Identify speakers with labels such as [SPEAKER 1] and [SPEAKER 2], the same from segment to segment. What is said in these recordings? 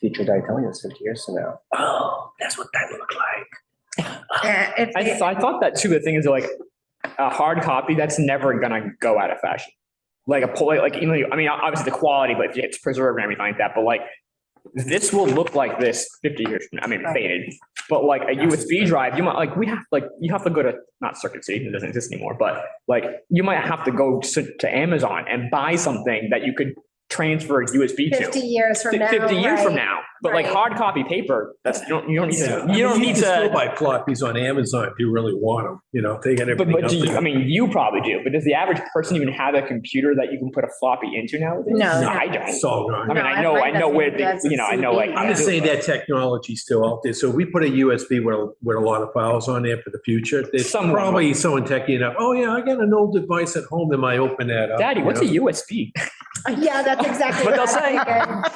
[SPEAKER 1] future guy telling us fifty years from now, oh, that's what that looked like.
[SPEAKER 2] Uh,
[SPEAKER 3] Yeah, if
[SPEAKER 4] I,
[SPEAKER 3] they-
[SPEAKER 4] th- I thought that too. The thing is like a hard copy, that's never gonna go out of fashion. Like a poli, like, you know, I mean, obviously the quality, but it's preserved and everything like that, but like this will look like this fifty years from, now. I mean,
[SPEAKER 3] Right.
[SPEAKER 4] faded, but like a USB drive, you might, like, we have, like, you have to go to, not Circuit City, it doesn't exist anymore, but like, you might have to go to, to Amazon and buy something that you could transfer a USB to.
[SPEAKER 3] Fifty years from now.
[SPEAKER 4] Fifty years from
[SPEAKER 3] right?
[SPEAKER 4] now, but like
[SPEAKER 3] Right.
[SPEAKER 4] hard copy paper, that's, you don't, you don't need to,
[SPEAKER 5] I
[SPEAKER 4] you don't
[SPEAKER 5] mean,
[SPEAKER 4] need
[SPEAKER 5] can
[SPEAKER 4] to.
[SPEAKER 5] still Buy plot fees on Amazon if you really want them, you know, they got
[SPEAKER 4] But,
[SPEAKER 5] everything
[SPEAKER 4] but
[SPEAKER 5] up
[SPEAKER 4] do you, I
[SPEAKER 5] there.
[SPEAKER 4] mean, you probably do, but does the average person even have a computer that you can put a floppy into nowadays?
[SPEAKER 3] No.
[SPEAKER 4] No, I don't.
[SPEAKER 5] So,
[SPEAKER 4] I
[SPEAKER 5] no,
[SPEAKER 4] mean,
[SPEAKER 3] No,
[SPEAKER 4] I
[SPEAKER 3] I-
[SPEAKER 4] know, I
[SPEAKER 3] mine
[SPEAKER 4] know
[SPEAKER 3] doesn't
[SPEAKER 4] where,
[SPEAKER 3] even-
[SPEAKER 4] the
[SPEAKER 3] that's
[SPEAKER 4] you know, I know like.
[SPEAKER 3] a
[SPEAKER 5] I'm just saying that technology's still out there. So we put a USB with, a- with a lot of files on there for the future. There's
[SPEAKER 4] Someone will.
[SPEAKER 5] probably someone techie enough, oh yeah, I got an old device at home, that might open that up.
[SPEAKER 4] Daddy,
[SPEAKER 5] you
[SPEAKER 4] what's a
[SPEAKER 5] know?
[SPEAKER 4] USB?
[SPEAKER 3] Yeah, that's exactly.
[SPEAKER 4] What they'll
[SPEAKER 3] I figured.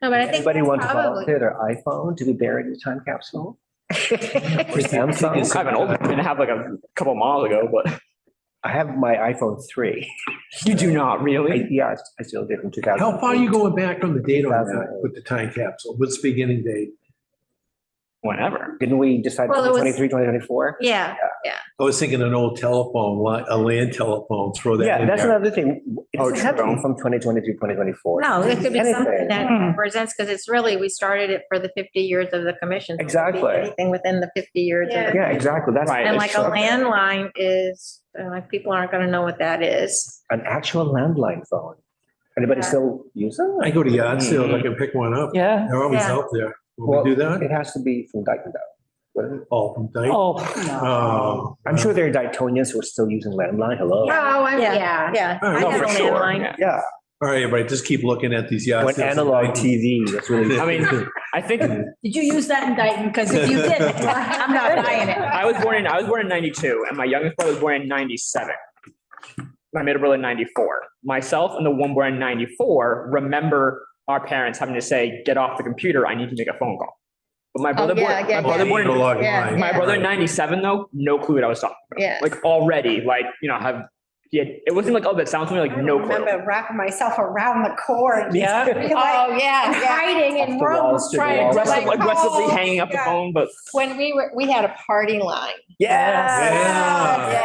[SPEAKER 3] No, but I think.
[SPEAKER 1] Anybody
[SPEAKER 3] that's
[SPEAKER 1] want to
[SPEAKER 3] probably-
[SPEAKER 1] volunteer their iPhone to be buried in a time capsule? Or
[SPEAKER 4] I
[SPEAKER 1] Samsung?
[SPEAKER 4] have an old, one. I have like a couple miles ago, but
[SPEAKER 1] I have my iPhone three.
[SPEAKER 4] you do not
[SPEAKER 1] I-
[SPEAKER 4] really.
[SPEAKER 1] Yeah, I still did from two thousand.
[SPEAKER 5] How far are you going back on the date on that with the time capsule? What's the beginning date?
[SPEAKER 4] Whenever.
[SPEAKER 1] Didn't we decide
[SPEAKER 3] Well, it was-
[SPEAKER 1] 2023, 2024?
[SPEAKER 3] Yeah,
[SPEAKER 5] I was thinking an old telephone, li- a land telephone, throw that
[SPEAKER 1] Yeah,
[SPEAKER 5] in
[SPEAKER 1] that's
[SPEAKER 5] there.
[SPEAKER 1] another thing. It
[SPEAKER 4] Oh,
[SPEAKER 1] doesn't have to be
[SPEAKER 4] true.
[SPEAKER 1] from 2023, 2024.
[SPEAKER 3] no, it could be something
[SPEAKER 1] Anything.
[SPEAKER 3] that represents, because it's really, we started it for the fifty years of the commission. so it could be
[SPEAKER 1] Exactly.
[SPEAKER 3] Anything within the fifty years. of the-
[SPEAKER 1] Yeah, exactly. That's
[SPEAKER 4] Right.
[SPEAKER 3] And like a
[SPEAKER 4] Exactly.
[SPEAKER 3] landline is, uh, like, people aren't gonna know what that is.
[SPEAKER 1] an actual landline phone. Anybody
[SPEAKER 3] Yeah.
[SPEAKER 1] still use them?
[SPEAKER 5] I go to yard sales, I can pick one up.
[SPEAKER 4] Mm-hmm. Yeah.
[SPEAKER 5] They're always
[SPEAKER 3] Yeah.
[SPEAKER 5] out there. Will
[SPEAKER 1] Well,
[SPEAKER 5] we do that?
[SPEAKER 1] It has to be from Dyken Dale.
[SPEAKER 5] Oh, from Dyke?
[SPEAKER 4] Oh,
[SPEAKER 5] Oh.
[SPEAKER 1] I'm sure there are Daytonians who are still using landline. Hello.
[SPEAKER 3] Oh, I'm, yeah. Yeah.
[SPEAKER 5] All
[SPEAKER 3] I
[SPEAKER 5] right,
[SPEAKER 4] no,
[SPEAKER 3] had
[SPEAKER 4] for
[SPEAKER 3] a
[SPEAKER 4] sure.
[SPEAKER 3] landline.
[SPEAKER 4] yeah.
[SPEAKER 1] Yeah,
[SPEAKER 5] all right, everybody, just keep looking at these yard
[SPEAKER 1] when
[SPEAKER 5] sales.
[SPEAKER 1] analog TV, that's really.
[SPEAKER 4] I mean, I think
[SPEAKER 2] Did you use that in Dayton? Because if you did, I'm not buying it.
[SPEAKER 4] I was born in, I was born in ninety-two and my youngest brother was born in ninety-seven. My middle brother in ninety-four. Myself and the one born in ninety-four remember our parents having to say, get off the computer, I need to make a phone call. But my brother, born-
[SPEAKER 3] Oh, yeah, yeah,
[SPEAKER 4] my brother born, in-
[SPEAKER 5] Analog
[SPEAKER 3] yeah,
[SPEAKER 5] line.
[SPEAKER 4] my brother in ninety-seven though, no clue what I was talking
[SPEAKER 3] Yeah.
[SPEAKER 4] about. Like already, like, you know, have, he had, it wasn't like, oh, that sounds to me like no clue.
[SPEAKER 2] wrapping myself around the cord.
[SPEAKER 4] Yeah.
[SPEAKER 3] Oh, yeah, yeah.
[SPEAKER 2] Hiding
[SPEAKER 1] in Up the walls rooms to the trying to, walls.
[SPEAKER 4] Aggressive- Aggressively hanging up the
[SPEAKER 2] yeah.
[SPEAKER 4] phone, but
[SPEAKER 3] When we were, we had a party line.
[SPEAKER 4] yes.
[SPEAKER 5] Yeah.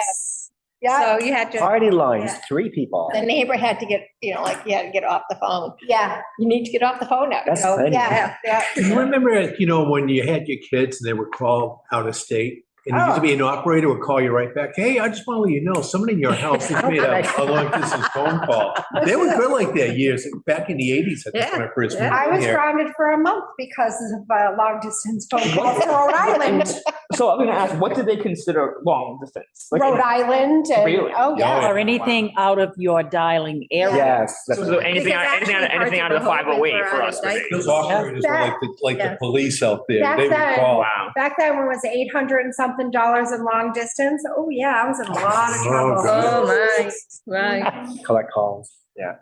[SPEAKER 3] Yes. So you had to,
[SPEAKER 1] Party lines, three people.
[SPEAKER 3] the neighbor had to get, you know, like you had to get off the phone.
[SPEAKER 2] Yeah.
[SPEAKER 3] You need to get off the phone now. you
[SPEAKER 1] That's
[SPEAKER 3] know?
[SPEAKER 1] funny.
[SPEAKER 3] Yeah, yeah.
[SPEAKER 5] You remember, you know, when you had your kids and they were called out of state? And it used to be an operator would call you right back. Hey, I just want to let you know, somebody in your house has made a, a long distance phone call. They were good like that years, back in the eighties, I think, when I first
[SPEAKER 3] Yeah.
[SPEAKER 2] I
[SPEAKER 5] moved
[SPEAKER 2] was
[SPEAKER 5] here.
[SPEAKER 2] grounded for a month because of a long distance phone call to Rhode Island,
[SPEAKER 4] So I'm gonna ask, what did they consider long distance? Like,
[SPEAKER 2] Rhode Island and,
[SPEAKER 4] Really?
[SPEAKER 2] oh yeah.
[SPEAKER 6] Or anything out of your dialing area.
[SPEAKER 1] Yes. that's-
[SPEAKER 4] So anything,
[SPEAKER 3] Because
[SPEAKER 4] anything, out-
[SPEAKER 3] actually
[SPEAKER 4] anything out of the
[SPEAKER 3] parts
[SPEAKER 4] five
[SPEAKER 3] of
[SPEAKER 4] oh
[SPEAKER 3] Brooklyn
[SPEAKER 4] eight
[SPEAKER 3] were
[SPEAKER 4] for
[SPEAKER 3] out
[SPEAKER 4] us.
[SPEAKER 3] of
[SPEAKER 4] was
[SPEAKER 3] date.
[SPEAKER 4] eight.
[SPEAKER 5] Those operators were like, the- like
[SPEAKER 3] Yeah.
[SPEAKER 5] the police out there.
[SPEAKER 2] Back
[SPEAKER 5] They would
[SPEAKER 2] then.
[SPEAKER 5] call.
[SPEAKER 4] Wow.
[SPEAKER 2] Back then when it was eight hundred and something dollars in long distance, oh yeah, I was in a lot of
[SPEAKER 5] Oh,
[SPEAKER 2] trouble.
[SPEAKER 5] God. Oh,
[SPEAKER 3] my, right.
[SPEAKER 1] Collect calls. Yeah,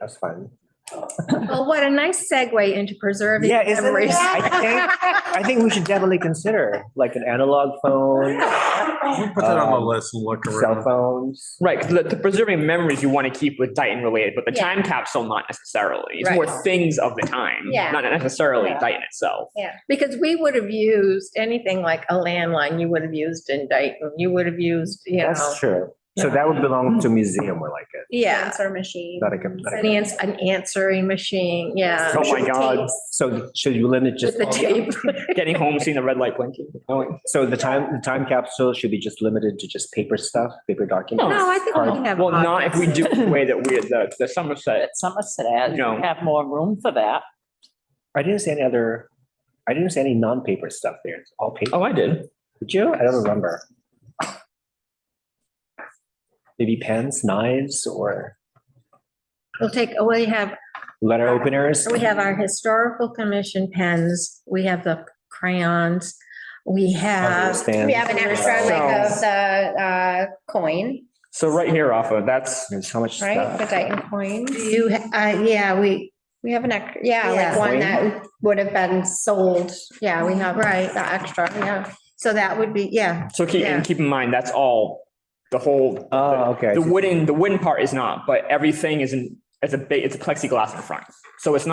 [SPEAKER 1] that's fun.
[SPEAKER 3] Well, what a nice segue into preserving
[SPEAKER 1] Yeah, isn't it?
[SPEAKER 3] memories.
[SPEAKER 1] I I think we should definitely consider like an analog phone,
[SPEAKER 5] We'll Put that on the list and look
[SPEAKER 1] cell
[SPEAKER 5] around.
[SPEAKER 1] phones.
[SPEAKER 4] Right, 'cause the, the preserving memories you want to keep with Dighton related, but the
[SPEAKER 3] Yeah.
[SPEAKER 4] time capsule not necessarily. It's
[SPEAKER 3] Right.
[SPEAKER 4] more things of the time,
[SPEAKER 3] Yeah.
[SPEAKER 4] not necessarily
[SPEAKER 3] Yeah.
[SPEAKER 4] Dighton itself.
[SPEAKER 3] Yeah, because we would have used anything like a landline, you would have used in Dayton, you would have used, you know,
[SPEAKER 1] That's true. So that would belong to museum or like it,
[SPEAKER 3] yeah.
[SPEAKER 2] Answer machine.
[SPEAKER 1] not a, com- not a
[SPEAKER 3] An ans- an answering machine, yeah.
[SPEAKER 4] Oh my God.
[SPEAKER 1] So should you limit
[SPEAKER 3] With
[SPEAKER 1] just,
[SPEAKER 3] the tape.
[SPEAKER 4] Getting home, seeing the red light blinking.
[SPEAKER 1] Oh, so the time, the time capsule should be just limited to just paper stuff, paper documents?
[SPEAKER 3] No, I think we can have.
[SPEAKER 4] Well, not if we
[SPEAKER 3] podcasts.
[SPEAKER 4] do it the way that we, the, the Somerset.
[SPEAKER 6] At Somerset, as you
[SPEAKER 4] No.
[SPEAKER 6] have more room for that.
[SPEAKER 1] I didn't see any other, I didn't see any non-paper stuff there. It's all paper.
[SPEAKER 4] Oh, I did.
[SPEAKER 1] Did you? I don't remember. Maybe pens, knives, or
[SPEAKER 3] We'll take, oh, we have,
[SPEAKER 1] letter openers?
[SPEAKER 3] Uh, we have our historical commission pens, we have the crayons, we have.
[SPEAKER 1] Understand.
[SPEAKER 7] We have an extra like of the uh, coin,
[SPEAKER 4] So right here, Rafa, that's,
[SPEAKER 1] There's so much
[SPEAKER 7] right? The
[SPEAKER 1] stuff.
[SPEAKER 7] Dayton coin.
[SPEAKER 3] You, uh, yeah, we,
[SPEAKER 7] We have an, ex- yeah, like
[SPEAKER 3] Yeah.
[SPEAKER 7] one that would have been sold. Yeah, we have
[SPEAKER 3] Right.
[SPEAKER 7] the extra, yeah.
[SPEAKER 3] so that would be, yeah,
[SPEAKER 4] so keep,
[SPEAKER 3] Yeah.
[SPEAKER 4] and keep in mind, that's all, the whole,
[SPEAKER 1] Oh, okay. I
[SPEAKER 4] the
[SPEAKER 1] see.
[SPEAKER 4] wooden, the wooden part is not, but everything is in, it's a big, it's a plexiglass in front. So it's not.